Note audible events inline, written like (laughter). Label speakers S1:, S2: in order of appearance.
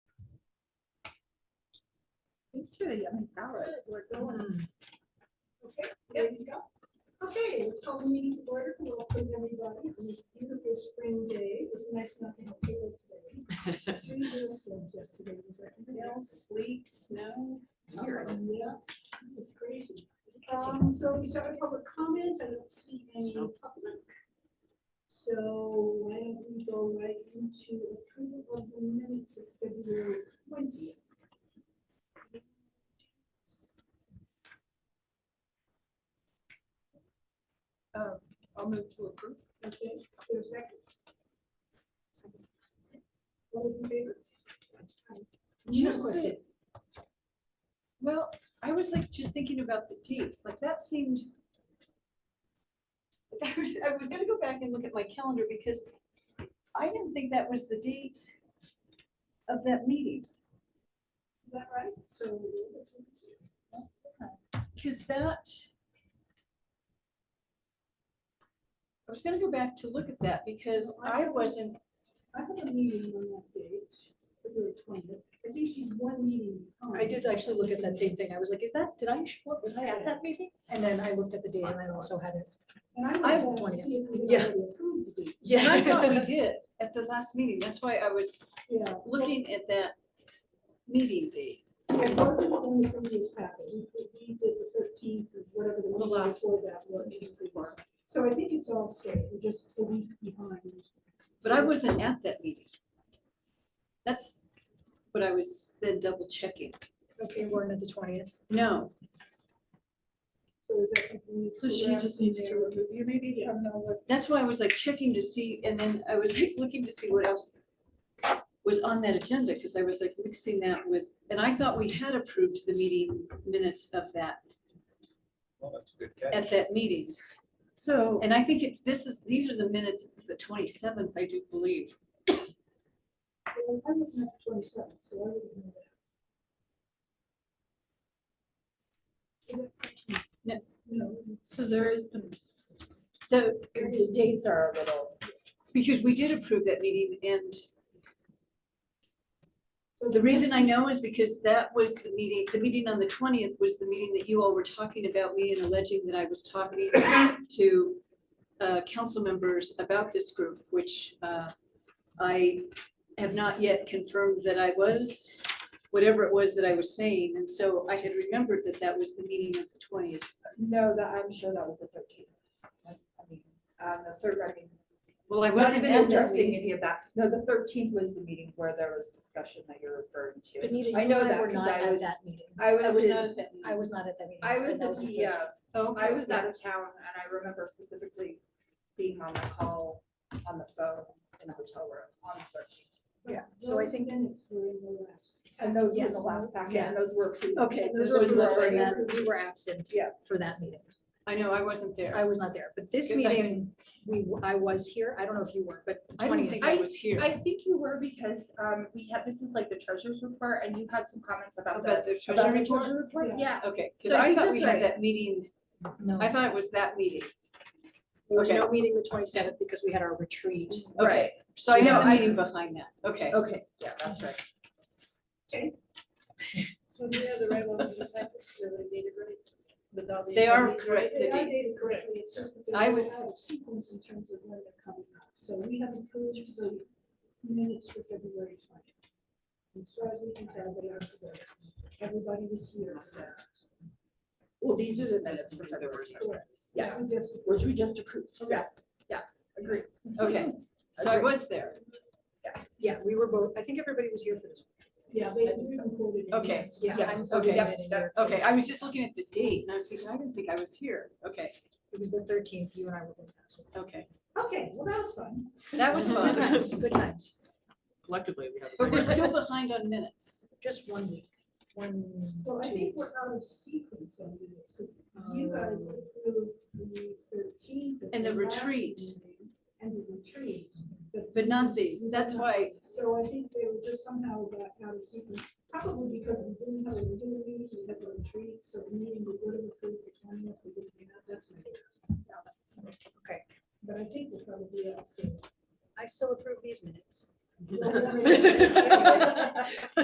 S1: It's really yummy salad. We're going.
S2: Okay, there you go. Okay, let's call the meeting to order. Welcome everybody on this beautiful spring day. It's nice not to have people today. Three snowstorms yesterday. Was there anything else?
S3: Sleet, snow, here.
S2: Yeah, it's crazy. Um, so we start a public comment. I don't see any
S3: Snow.
S2: public. So why don't we go right into approval of the minutes of February twentieth?
S1: Uh, I'll move to approve.
S2: Okay, is there a second? All those in favor?
S1: Just
S2: No question.
S1: the- Well, I was like just thinking about the dates, like that seemed, (laughs)
S3: I was I was gonna go back and look at my calendar because I didn't think that was the date of that meeting.
S2: Is that right? So.
S1: because that. I was gonna go back to look at that because I wasn't,
S2: I have a meeting on that date, February twentieth. I think she's one meeting.
S4: I did actually look at that same thing. I was like, is that, did I, show up? was I at that meeting? And then I looked at the date and I also had it.
S2: And I
S4: I-
S2: was trying to see if we
S4: Yeah.
S2: had already approved the date.
S1: and I thought
S4: Yeah.
S1: we did at the last meeting. That's why I was
S2: Yeah.
S1: looking at that meeting date.
S2: It wasn't only from this packet. We we did the thirteenth, whatever the
S1: The
S2: one
S1: last
S2: before that was. So I think it's all straight. We're just a week behind.
S1: But I wasn't at that meeting. That's what I was then double checking.
S4: Okay, we're in at the twentieth.
S1: No,
S2: So is that something? we-
S1: So she just needs to remove you maybe from the list? That's why I was like checking to see, and then I was like looking to see what else was on that agenda, because I was like mixing that with, and I thought we had approved the meeting minutes of that,
S5: Well, that's a good catch.
S1: at that meeting.
S4: So.
S1: And I think it's, this is, these are the minutes of the twenty-seventh, I do believe.
S2: Well, I wasn't at the twenty-seventh, so I wouldn't know that.
S1: Yes.
S2: No.
S1: So there is some. So,
S4: The dates are a little.
S1: because we did approve that meeting, and The reason I know is because that was the meeting, the meeting on the twentieth was the meeting that you all were talking about me and alleging that I was talking to uh, council members about this group, which uh, I have not yet confirmed that I was, whatever it was that I was saying. And so I had remembered that that was the meeting of the twentieth.
S4: No, that, I'm sure that was the thirteenth. I mean, on the third, I mean.
S1: Well, I
S4: I wasn't
S1: wasn't at that
S4: addressing
S1: meeting.
S4: any of that. No, the thirteenth was the meeting where there was discussion that you're referring to.
S6: Benita,
S4: I
S6: you
S4: know
S6: and I
S4: that
S6: were
S4: 'cause
S6: not
S4: I
S6: at
S4: was-
S6: that meeting.
S4: I
S1: I
S4: was
S1: was
S4: in-
S1: not at that meeting.
S6: I was not at that meeting.
S4: I was
S6: and that
S4: at
S6: the
S4: the, uh,
S6: 13th.
S1: Oh,
S4: I
S1: okay.
S4: was out of town and I remember specifically being on the call, on the phone in the hotel room on the thirteenth.
S2: Yeah,
S6: so I think-
S2: Minutes were in the last.
S4: And those were the
S6: Yes.
S4: last packet and those were. approved.
S1: uh,
S6: Okay,
S4: And
S6: those
S4: those
S6: were,
S4: were
S6: you were
S4: already
S6: that- you were absent
S4: Yeah.
S6: for that meeting.
S1: I know, I wasn't there.
S6: I was not there, but this
S1: Because I
S6: meeting, we, w- I was here. I don't know if you were, but
S1: I didn't think
S6: twentieth.
S1: I was here
S7: I think you were because um we had, this is like the treasurer's report and you had some comments about
S1: about
S7: the.
S1: the
S4: About
S1: treasury
S4: the
S1: report.
S4: treasury report?
S7: Yeah,
S1: Okay, because
S7: So I
S1: I
S7: think
S1: thought
S7: that's
S1: we had
S7: right.
S1: that meeting,
S6: No,
S1: I
S6: there
S1: thought it was that meeting.
S6: was
S1: okay.
S6: no meeting the twenty-seventh because we had our retreat.
S1: Okay,
S7: right.
S1: so I
S6: So
S1: know the
S6: I-
S1: meeting behind that, okay.
S6: Okay.
S4: Yeah, that's right.
S2: So they are the right ones, is that, they're dated right? Without the
S1: They are
S2: attorneys, right?
S1: correct, the
S2: They are
S1: dates.
S2: dated correctly, it's just that
S1: I
S2: they're
S1: was-
S2: all out of sequence in terms of when they're coming up. So we have approved the minutes for February twentieth. As far as we can tell, they are correct. Everybody was here. for that.
S4: Well, these are the minutes for February.
S2: Correct.
S4: Yes.
S2: We just-
S4: Which we just approved.
S6: Yes, yes, agree.
S1: Okay, so I
S4: Agreed.
S1: was there,
S6: Yeah, we were both, I think everybody was here for this.
S2: Yeah, they did include it. in
S1: Okay.
S2: minutes.
S6: Yeah. I'm so
S1: Okay.
S6: glad in here.
S1: okay, I was just looking at the date and I was thinking, I didn't think I was here, okay,
S6: It was the thirteenth, you and I were both absent.
S1: okay,
S2: Okay, well, that was fun.
S1: that was
S6: Good (laughs)
S1: fun.
S6: times, good times.
S3: Collectively, we have.
S1: But we're still behind on minutes,
S6: Just one week, one,
S2: Well, I
S6: two
S2: think
S6: weeks.
S2: we're out of sequence on minutes, because you guys
S6: Oh.
S2: approved the thirteenth.
S1: Um, And the retreat.
S2: And the retreat.
S1: but not these, that's why,
S2: So I think they were just somehow got out of sequence, probably because we didn't have a regular meeting, we had a retreat, so the meeting we would have approved the twentieth, we didn't have, that's my guess.
S6: Okay.
S2: But I think we're probably out. of
S1: (laughs)
S6: I still approve these minutes.
S2: (laughs)
S6: (laughs)
S2: sequence.